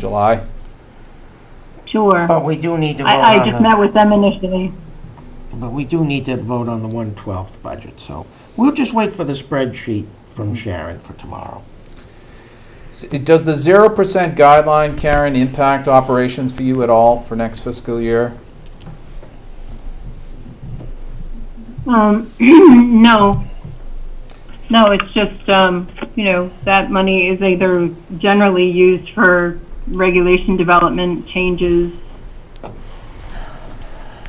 July? Sure. But we do need to vote I, I on just met the, with them initially. but we do need to vote on the 112th budget, so we'll just wait for the spreadsheet from Sharon for tomorrow. S- Does the zero percent guideline, Karen, impact operations for you at all for next fiscal year? Um, no. No, it's just, um, you know, that money is either generally used for regulation development changes.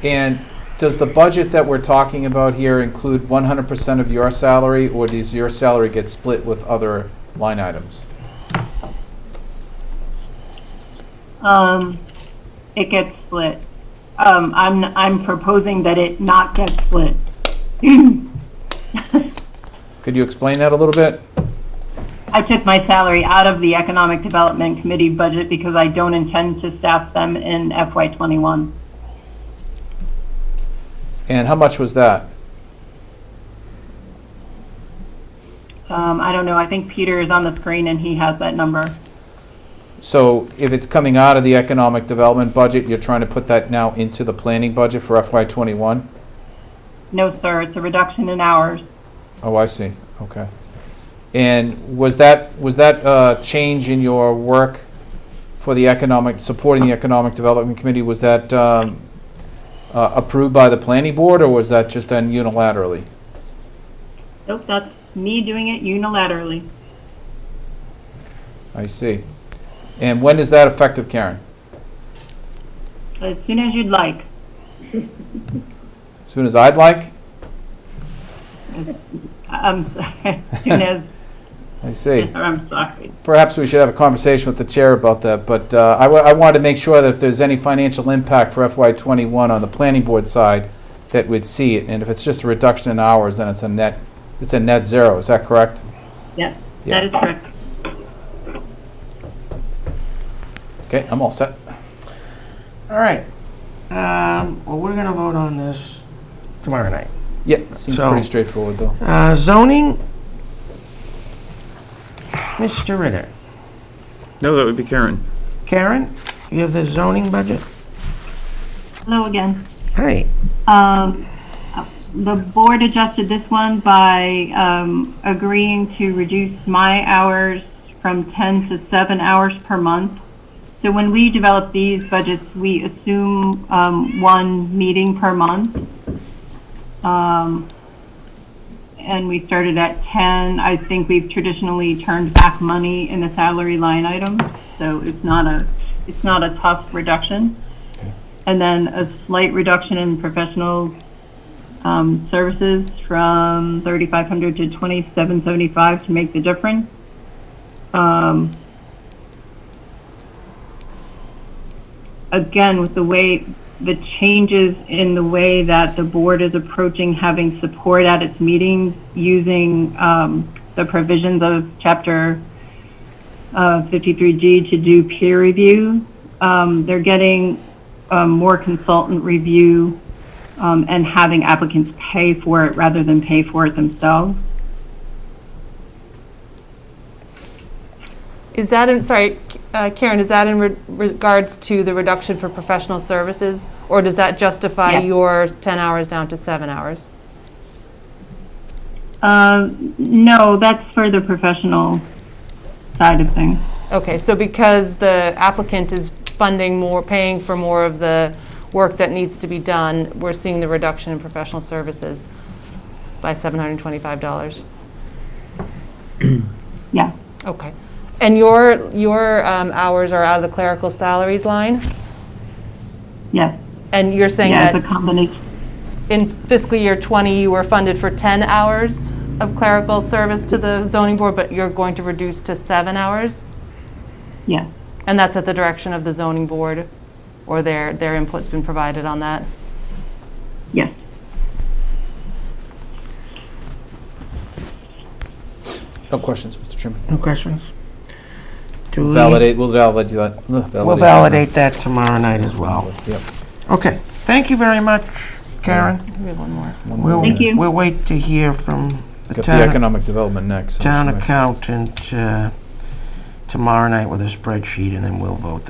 And does the budget that we're talking about here include one hundred percent of your salary, or does your salary get split with other line items? Um, it gets split. Um, I'm, I'm proposing that it not get split. Could you explain that a little bit? I took my salary out of the Economic Development Committee budget because I don't intend to staff them in FY twenty-one. And how much was that? Um, I don't know, I think Peter is on the screen and he has that number. So if it's coming out of the economic development budget, you're trying to put that now into the planning budget for FY twenty-one? No, sir, it's a reduction in hours. Oh, I see, okay. And was that, was that uh change in your work for the economic, supporting the Economic Development Committee, was that um, uh, approved by the planning board, or was that just done unilaterally? Nope, that's me doing it unilaterally. I see. And when is that effective, Karen? As soon as you'd like. Soon as I'd like? I'm sorry, as soon as, I see. I'm sorry. Perhaps we should have a conversation with the chair about that, but uh, I wa- I wanted to make sure that if there's any financial impact for FY '21 on the planning board side, that we'd see it, and if it's just a reduction in hours, then it's a net, it's a net zero, is that correct? Yes, Yeah. that is correct. Okay, I'm all set. All right. Um, Well, we're going to vote on this tomorrow night. Yeah, seems So- pretty straightforward, though. Uh, Zoning, Mr. Ritter. No, that would be Karen. Karen, you have the zoning budget? Hello again. Hey, Um, The board adjusted this one by um, agreeing to reduce my hours from 10 to 7 hours per month. So when we develop these budgets, we assume um, one meeting per month. Um, And we started at 10. I think we've traditionally turned back money in the salary line item, so it's not a, it's not a tough reduction and then a slight reduction in professional um, services from 3,500 to 2,775 to make the difference. Um, Again, with the way, the changes in the way that the board is approaching having support at its meetings using um, the provisions of Chapter uh, 53G to do peer review. Um, They're getting um, more consultant review um, and having applicants pay for it rather than pay for it themselves. Is that in, sorry, uh, Karen, is that in re- regards to the reduction for professional services? Or does that justify Yes. your 10 hours down to seven hours? Um, no, that's for the professional side of things. Okay, so because the applicant is funding more, paying for more of the work that needs to be done, we're seeing the reduction in professional services by $725. Yeah. Okay. And your, your um, hours are out of the clerical salaries line? Yes. And you're saying Yeah, that it's a combination. in fiscal year '20, you were funded for 10 hours of clerical service to the zoning board, but you're going to reduce to seven hours? Yeah. And that's at the direction of the zoning board, or their, their input's been provided on that? Yes. No questions, Mr. Chairman. no questions? Do we- Validate, we'll validate that. We'll validate that tomorrow night as well. Yep. Okay, thank you very much, Karen. We have one more. We'll, Thank you. we'll wait to hear from the Got the town, economic development next. so town she might- accountant, uh, tomorrow night with a spreadsheet, and then we'll vote